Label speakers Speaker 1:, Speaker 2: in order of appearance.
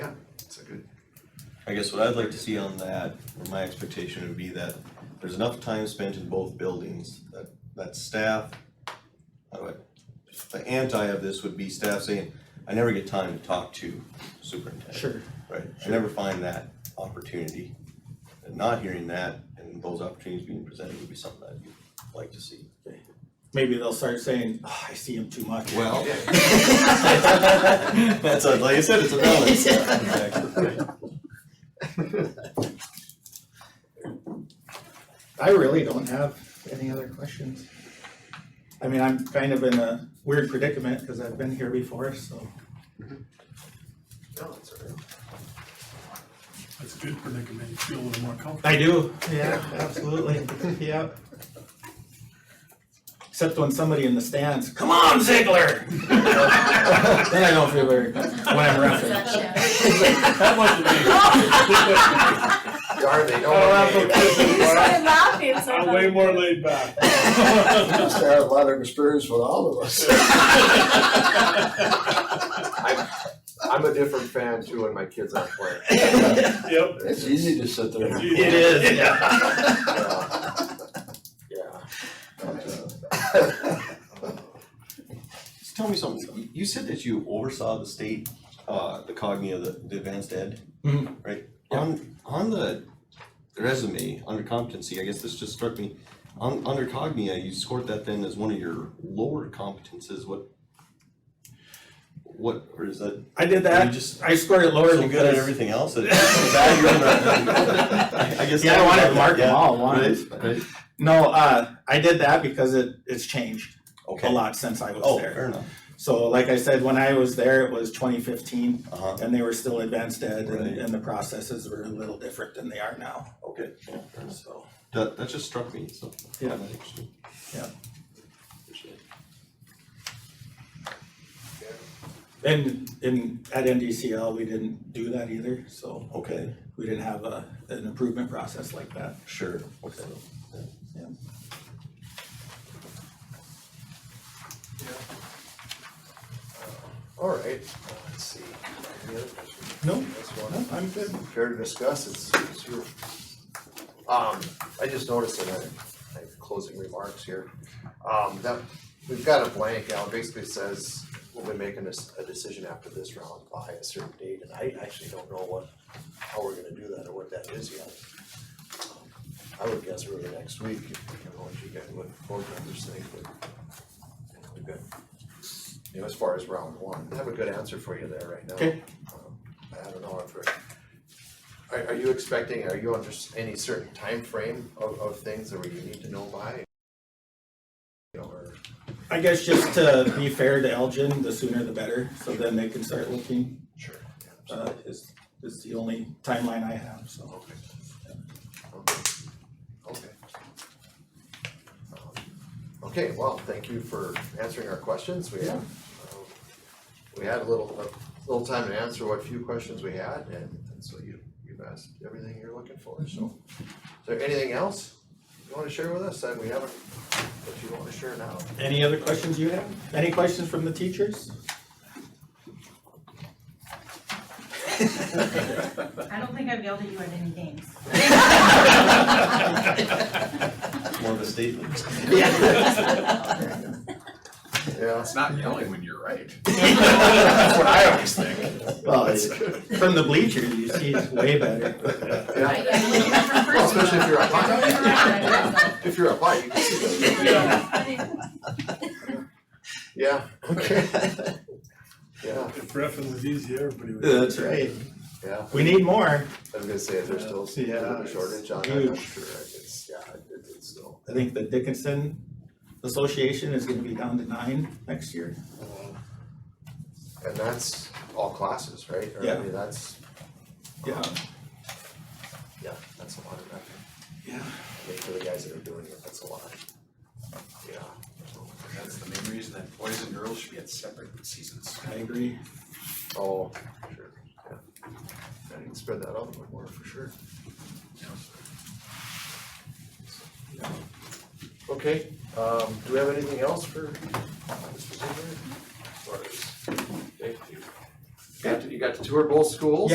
Speaker 1: I guess what I'd like to see on that, or my expectation would be that there's enough time spent in both buildings, that, that staff, how do I- the anti of this would be staff saying, I never get time to talk to superintendent.
Speaker 2: Sure.
Speaker 1: Right, I never find that opportunity, and not hearing that, and those opportunities being presented would be something I'd like to see.
Speaker 2: Maybe they'll start saying, "Ah, I see him too much.
Speaker 1: Well. That's, a- like I said, it's a balance.
Speaker 2: I really don't have any other questions. I mean, I'm kind of in a weird predicament because I've been here before, so.
Speaker 3: No, it's all right.
Speaker 4: That's a good predicament, you feel a little more comfortable.
Speaker 2: I do. Yeah, absolutely, yep. Except when somebody in the stands, come on Ziegler! Then I don't feel very, good when I'm refereeing.
Speaker 4: That must
Speaker 3: Are they?
Speaker 4: Oh, that's
Speaker 3: Oh,
Speaker 4: okay.
Speaker 3: okay.
Speaker 5: You started laughing, so.
Speaker 4: I'm way more laid back.
Speaker 6: Must have had a lot of experience with all of us.
Speaker 3: I'm a different fan too when my kids aren't playing.
Speaker 4: Yep.
Speaker 6: It's easy to sit there. and-
Speaker 4: It is,
Speaker 3: Yeah. Yeah.
Speaker 1: Just tell me something, You- you said that you oversaw the state, uh, the cogni of the, the advanced ed,
Speaker 2: Mhm.
Speaker 1: right? On, on the resume, under competency, I guess this just struck me, on, under cognia, you scored that then as one of your lower competences, what? What, or is that,
Speaker 2: I did
Speaker 1: are you
Speaker 2: that,
Speaker 1: just
Speaker 2: I scored it lower
Speaker 1: so good at
Speaker 2: because,
Speaker 1: everything else, that it's bad you're not- I guess.
Speaker 2: yeah, I wanted to mark
Speaker 1: Yeah,
Speaker 2: them all
Speaker 1: Right,
Speaker 2: once.
Speaker 1: right,
Speaker 2: No, uh, I did that because it, it's changed
Speaker 1: okay,
Speaker 2: a lot since I was
Speaker 1: oh,
Speaker 2: there.
Speaker 1: fair enough,
Speaker 2: So like I said, when I was there, it was twenty fifteen
Speaker 1: uh-huh,
Speaker 2: and they were still advanced ed
Speaker 1: Right.
Speaker 2: and, and the processes were a little different than they are now,
Speaker 1: okay,
Speaker 2: so.
Speaker 1: that, that just struck me, so.
Speaker 2: Yeah.
Speaker 1: Interesting.
Speaker 2: Yeah.
Speaker 1: Appreciate it.
Speaker 2: And in, at NDCL, we didn't do that either, so
Speaker 1: Okay,
Speaker 2: we didn't have a, an improvement process like that.
Speaker 1: sure, okay.
Speaker 3: All right, Uh, let's see. Any other questions?
Speaker 2: No,
Speaker 3: That's one.
Speaker 2: I'm good.
Speaker 3: Care to discuss, it's, it's your. Um, I just noticed in our, my closing remarks here, um, that, we've got a blank out, basically says, we'll be making a, s- a decision after this round by a certain date, and I actually don't know what, how we're gonna do that or what that is yet. Um, I would guess early next week, if we can launch you guys what board members think, but you know, we've got, you know, as far as round one, I have a good answer for you there right now.
Speaker 2: Okay.
Speaker 3: Um, I don't know if we're are, are you expecting, are you under s- any certain time frame of, of things that you need to know by? You know, Or,
Speaker 2: I guess just to be fair to Elgin, the sooner the better, so then they can start looking,
Speaker 3: sure. yeah, so-
Speaker 2: uh, is, is the only timeline I have, so.
Speaker 3: Okay. Okay. Okay. Um, Okay, well, thank you for answering our questions, we had, um, we had a little, a little time to answer what few questions we had, and, and so you, you've asked everything you're looking for, so. Is there anything else you wanna share with us, that we haven't, that you wanna share now?
Speaker 2: Any other questions you have? Any questions from the teachers?
Speaker 7: I don't think I've yelled at you at any games.
Speaker 1: It's more of a statement.
Speaker 3: Yeah.
Speaker 8: It's not yelling when you're right.
Speaker 3: That's what I always think.
Speaker 2: Well, it's from the bleachers, you see it's way better.
Speaker 3: Yeah, Well, especially if you're a hot. If you're a hot, you can see that. Yeah, okay. Yeah,
Speaker 4: If reffing was easy, everybody would.
Speaker 2: That's right.
Speaker 3: yeah,
Speaker 2: We need more.
Speaker 3: I was gonna say, is there still a bit of
Speaker 2: Yeah,
Speaker 3: a
Speaker 2: it's
Speaker 3: shortage on that, I'm
Speaker 2: huge.
Speaker 3: sure, it's, yeah, it- it's still.
Speaker 2: I think the Dickinson Association is gonna be down to nine next year.
Speaker 3: Uh, And that's all classes, right? Or, I
Speaker 2: Yeah.
Speaker 3: mean, that's, um,
Speaker 2: Yeah.
Speaker 3: yeah, that's a lot of effort,
Speaker 2: Yeah.
Speaker 3: I mean, for the guys that are doing it, that's a lot. Yeah.
Speaker 8: That's the main reason that boys and girls should be at separate seasons.
Speaker 2: I agree.
Speaker 3: Oh, sure, yeah. I can spread that out a little more for sure. Yeah. Okay, um, do we have anything else for Mr. Ziegler? As far as- okay, you got to, you got to tour both schools?